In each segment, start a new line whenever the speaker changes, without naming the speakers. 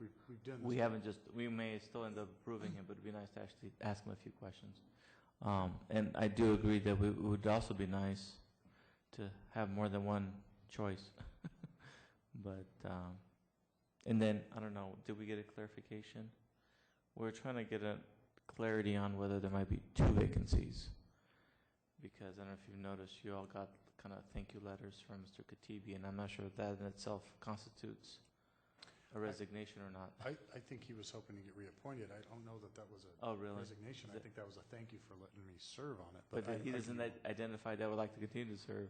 We've done this.
We haven't just, we may still end up approving him, but it'd be nice to actually ask him a few questions. Um, And I do agree that we- it would also be nice to have more than one choice. But, um, and then, I don't know, did we get a clarification? We're trying to get a clarity on whether there might be two vacancies. Because I don't know if you've noticed, you all got kind of thank you letters from Mr. Katibi, and I'm not sure if that in itself constitutes a resignation or not.
I, I think he was hoping to get reappointed. I don't know that that was a
Oh, really?
resignation.
Is
I
it-
think that was a thank you for letting me serve on it.
But
I-
he
I
doesn't
can-
i- identify that would like to continue to serve.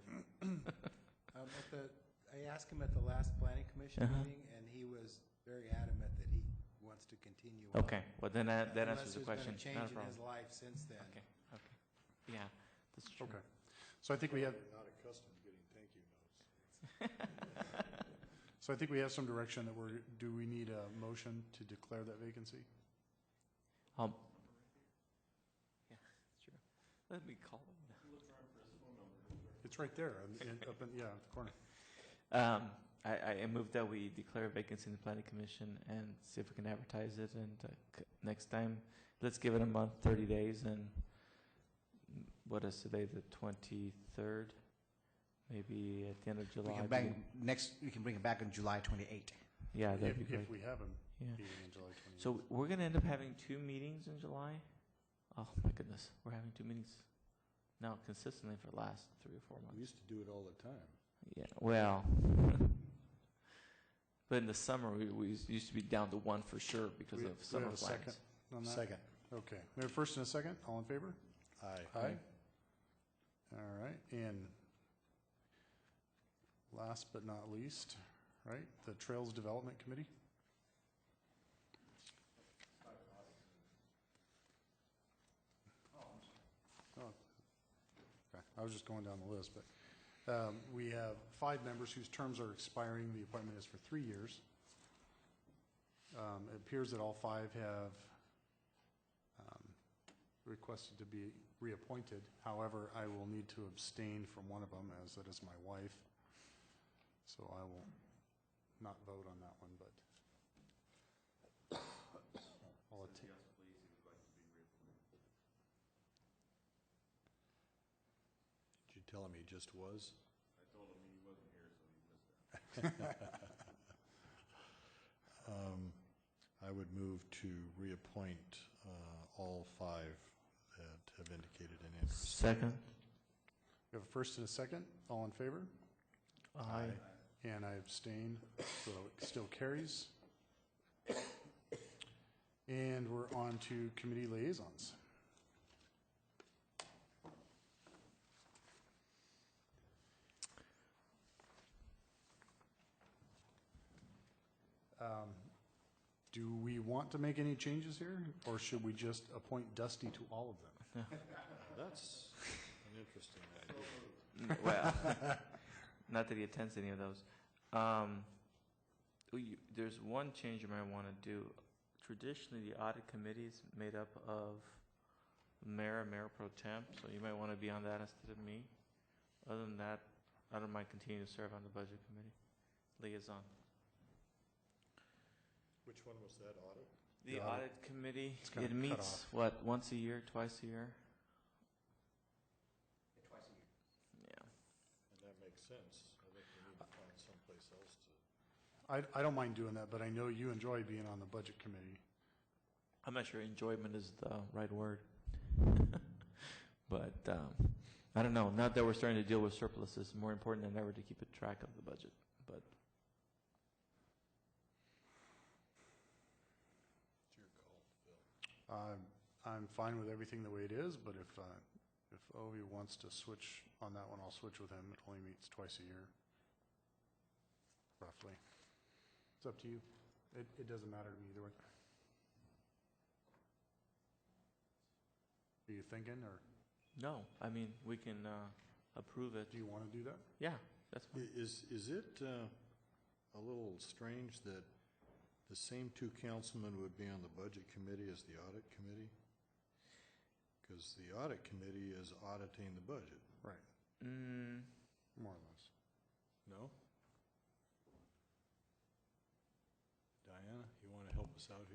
Um, at the, I asked him at the last planning commission
Uh-huh.
meeting, and he was very adamant that he wants to continue. on.
Okay, well, then that, that answers the question.
Unless there's been
Not a
a change in his
problem.
life since then.
Okay, okay. Yeah, that's true.
Okay. So I think we have,
Not accustomed to getting thank you notes.
so I think we have some direction that we're, do we need a motion to declare that vacancy?
Um, yeah, sure. Let me call him.
It's right there, in- in- up in, yeah, at the corner.
Um, I, I move that we declare a vacancy in the planning commission and see if we can advertise it. And uh, c- next time, let's give it a month, thirty days, and mm, what is today, the twenty-third? Maybe at the end of
We
July.
can bang, next, we can bring it back on July 28.
Yeah, that'd be
If,
great.
if we have him
Yeah.
meeting in July 28th.
So we're gonna end up having two meetings in July? Oh, my goodness, we're having two meetings now consistently for the last three or four
We
months.
used to do it all the time.
Yeah, well, but in the summer, we, we used to be down to one for sure because
We-
of
we
summer
have a
plans.
second on that?
Second.
Okay. We have a first and a second. All in favor?
Aye.
Aye. All right, and last but not least, right, the Trails Development Committee? Oh, Okay, I was just going down the list, but um, we have five members whose terms are expiring. The appointment is for three years. Um, It appears that all five have um, requested to be reappointed. However, I will need to abstain from one of them, as that is my wife. So I will not vote on that one, but. I'll atta-
Did you tell him he just was? I told him he wasn't here, so he missed that. Um, I would move to reappoint uh, all five that have indicated an interest.
Second?
We have a first and a second. All in favor?
Aye.
And I abstain, so it still carries. And we're on to committee liaisons. Um, Do we want to make any changes here, or should we just appoint Dusty to all of them?
That's an interesting idea.
Mm, Well, not that he attends any of those. Um, we- there's one change you might want to do. Traditionally, the audit committee is made up of mayor, mayor pro temp, so you might want to be on that instead of me. Other than that, I don't mind continuing to serve on the budget committee liaison.
Which one was that, audit?
The
The audit-
audit committee,
It's kinda
it
cut
meets,
off.
what, once a year, twice a year? Yeah.
And that makes sense. I think we need to find someplace else to.
I, I don't mind doing that, but I know you enjoy being on the budget committee.
I'm not sure enjoyment is the right word. but um, I don't know. Now that we're starting to deal with surpluses, it's more important than ever to keep a track of the budget. But
It's your call, Phil.
I'm, I'm fine with everything the way it is, but if, uh, if Ovi wants to switch on that one, I'll switch with him. It only meets twice a year, roughly. It's up to you. It, it doesn't matter to me either way. Are you thinking, or
no, I mean, we can uh, approve it.
do you want to do that?
Yeah, that's fine.
I- Is, is it uh, a little strange that the same two councilmen would be on the Budget Committee as the Audit Committee? Because the Audit Committee is auditing the budget,
Right,
Mm,
more or less.
no? Diana, you want to help us
this out here.